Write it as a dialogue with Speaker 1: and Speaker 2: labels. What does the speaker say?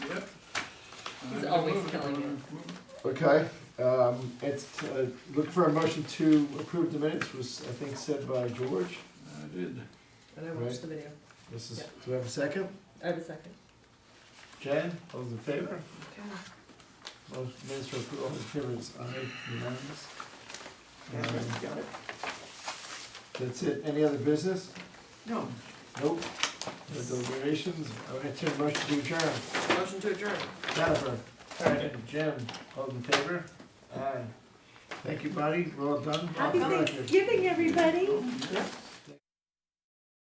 Speaker 1: always killing Uh, it.
Speaker 2: Okay, um, it's, uh, look for a motion to approve the minutes, was, I think, said by George.
Speaker 3: I did.
Speaker 1: And I
Speaker 2: Right.
Speaker 1: watched the video.
Speaker 2: This is,
Speaker 1: Yeah.
Speaker 2: do we have a second?
Speaker 1: I have a second.
Speaker 2: Jan, all those in favor?
Speaker 1: Okay.
Speaker 2: Motion minutes for approval, all those in favor, it's aye, unanimous. Um,
Speaker 3: Got it?
Speaker 2: That's it, any other business?
Speaker 3: No.
Speaker 2: Nope. No deliberations, I'm gonna turn motion to adjourn.
Speaker 1: Motion to adjourn.
Speaker 2: Jennifer, Karen, Jim, all in favor? Aye. Thank you, buddy, well done.
Speaker 1: Happy
Speaker 2: Welcome.
Speaker 1: Thanksgiving, everybody.
Speaker 2: Yeah.